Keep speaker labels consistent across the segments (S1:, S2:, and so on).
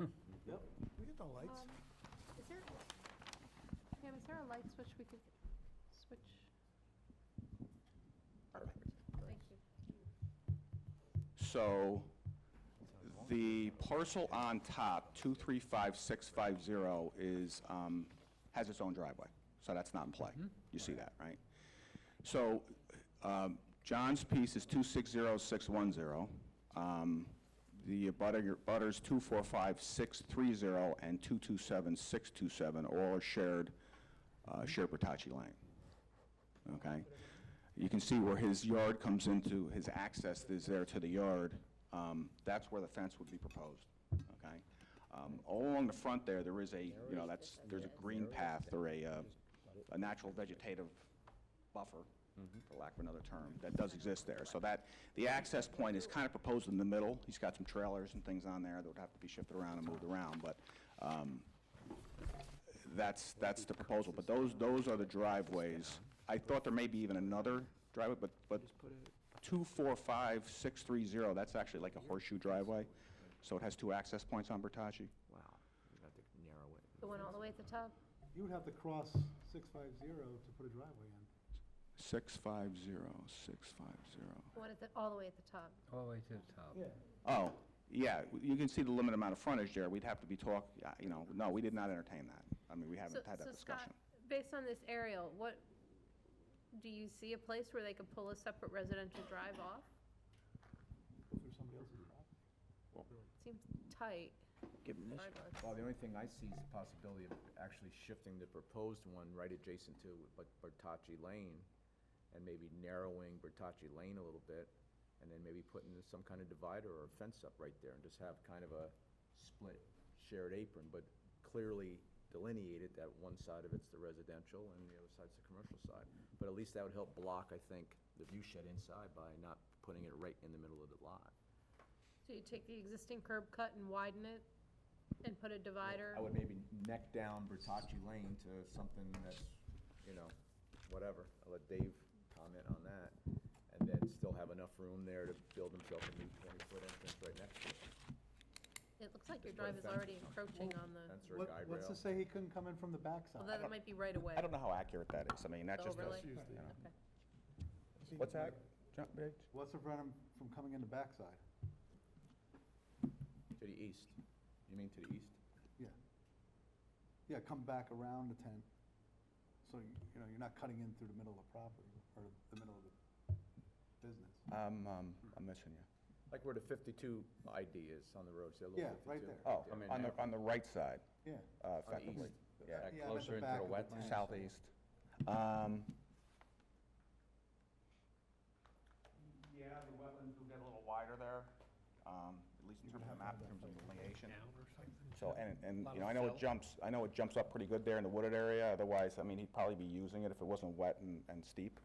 S1: Lights?
S2: Um, Is there, Pam, is there a light switch we could switch?
S1: Perfect.
S2: Thank you.
S3: So the parcel on top, 235650, is, um, has its own driveway, so that's not in play. You see that, right? So um, John's piece is 260610. Um, The abutter- butters 245630 and 227627 all are shared, uh, shared Bertocci Lane okay? You can see where his yard comes into, his access is there to the yard. Um, That's where the fence would be proposed, okay? Um, All along the front there, there is a, you know, that's, there's a green path or a, uh, a natural vegetative buffer, for lack of another term, that does exist there. So that, the access point is kind of proposed in the middle. He's got some trailers and things on there that would have to be shifted around and moved around, but um, that's, that's the proposal, but those, those are the driveways. I thought there may be even another driveway, but, but two, four, five, six, three, zero, that's actually like a horseshoe driveway, so it has two access points on Bertocci.
S4: Wow, we have to narrow it.
S2: The one all the way at the top?
S1: You would have to cross 650 to put a driveway in.
S3: Six, five, zero, six, five, zero.
S2: The one at the, all the way at the top?
S5: All the way to the top.
S1: Yeah.
S3: Oh, yeah, you can see the limited amount of frontage there, we'd have to be talk, yeah, you know, no, we did not entertain that. I mean, we
S2: So,
S3: haven't had that
S2: so Scott,
S3: discussion.
S2: based on this aerial, what, do you see a place where they could pull a separate residential drive off?
S1: Go through somebody else's property.
S2: Seems tight.
S4: Give them this.
S2: Sideways.
S4: Well, the only thing I see is the possibility of actually shifting the proposed one right adjacent to Bert- Bertocci Lane, and maybe narrowing Bertocci Lane a little bit, and then maybe putting some kind of divider or fence up right there, and just have kind of a split shared apron, but clearly delineated that one side of it's the residential and the other side's the commercial side. But at least that would help block, I think, the view shed inside by not putting it right in the middle of the lot.
S2: So you take the existing curb cut and widen it and put a divider?
S4: I would maybe neck down Bertocci Lane to something that's, you know, whatever. I'll let Dave comment on that. And then still have enough room there to build himself a new twenty-foot entrance right next to it.
S1: Uh,
S2: It looks like your
S4: Just put a
S2: drive is already
S4: fence.
S2: encroaching on the,
S4: Fence or
S1: What-
S4: guide
S1: What's to
S4: rail.
S1: say he couldn't come in from the
S2: well,
S1: backside?
S2: that might be right away.
S3: I don't know how accurate that is, I mean, that just
S2: Overlay?
S3: does.
S1: Tuesday.
S3: you know.
S2: Okay.
S3: What's that? John, Rich?
S1: What's to prevent him from coming in the backside?
S4: To the east. You mean to the east?
S1: Yeah. Yeah, come back around the 10, so, you you know, you're not cutting in through the middle of the property, or the middle of the business.
S3: I'm, um, I'm missing you.
S4: Like where the fifty-two ID is on the road, say a
S1: Yeah,
S4: little
S1: right
S4: fifty-two.
S1: there.
S3: Oh, on the, on the right side,
S1: Yeah.
S3: uh,
S4: On the
S3: effectively.
S4: east.
S3: Yeah.
S4: Back
S1: Yeah, I'm at the
S4: Closer
S1: back
S4: into the
S1: of the
S4: wet.
S1: plan.
S3: Southeast. Um, Yeah, the wetlands will get a little wider there, um, at least in terms of the map, in terms of delineation. So, and, and, you know, I know it jumps, I know it jumps up pretty good there in the wooded area, otherwise, I mean, he'd probably be using it if it wasn't wet and, and steep,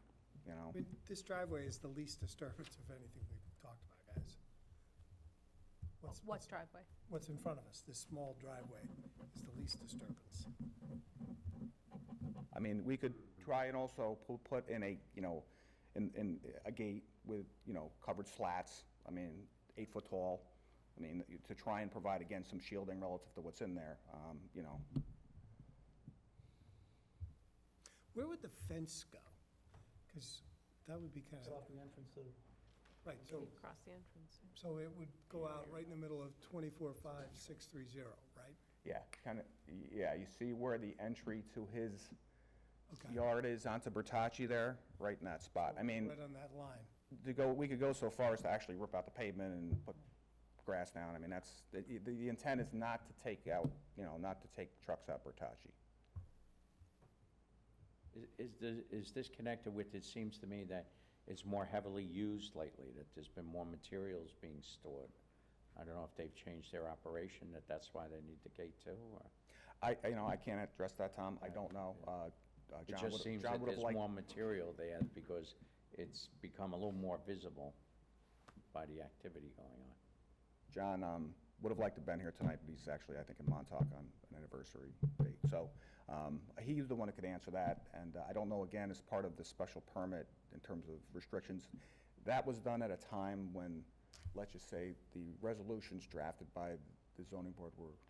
S3: you know?
S6: I mean, this driveway is the least disturbance of anything we've talked about, guys. What's,
S2: What driveway?
S6: what's in front of us, this small driveway is the least disturbance.
S3: I mean, we could try and also pu- put in a, you know, in, in a gate with, you know, covered slats, I mean, eight foot tall. I mean, to try and provide, again, some shielding relative to what's in there, um, you know.
S6: Where would the fence go? Because that would be kind of,
S1: the entrance to.
S6: right, so,
S2: Across the entrance.
S6: so it would go out right in the middle of 245630, right?
S3: Yeah, kind of, yeah, you see where the entry to his
S6: Okay.
S3: yard is onto Bertocci there, right in that spot. I
S6: Right
S3: mean,
S6: on that line.
S3: to go, we could go so far as to actually rip out the pavement and put grass down. I mean, that's, the, the intent is not to take out, you know, not to take trucks out Bertocci.
S7: Is- Is, this- is this connected with, it seems to me that it's more heavily used lately, that there's been more materials being stored? I don't know if they've changed their operation, that that's why they need the gate too, or?
S3: I, I- you know, I can't address that, Tom, I don't know. Uh, uh,
S7: It
S3: John
S7: just
S3: would've-
S7: seems
S3: John
S7: that
S3: would've
S7: there's
S3: liked-
S7: more material there because it's become a little more visible by the activity going on.
S3: John um, would have liked to have been here tonight, but he's actually, I think, in Montauk on an anniversary date. So um, he's the one that could answer that, and uh, I don't know, again, as part of the special permit in terms of restrictions, that was done at a time when, let's just say, the resolutions drafted by the zoning board were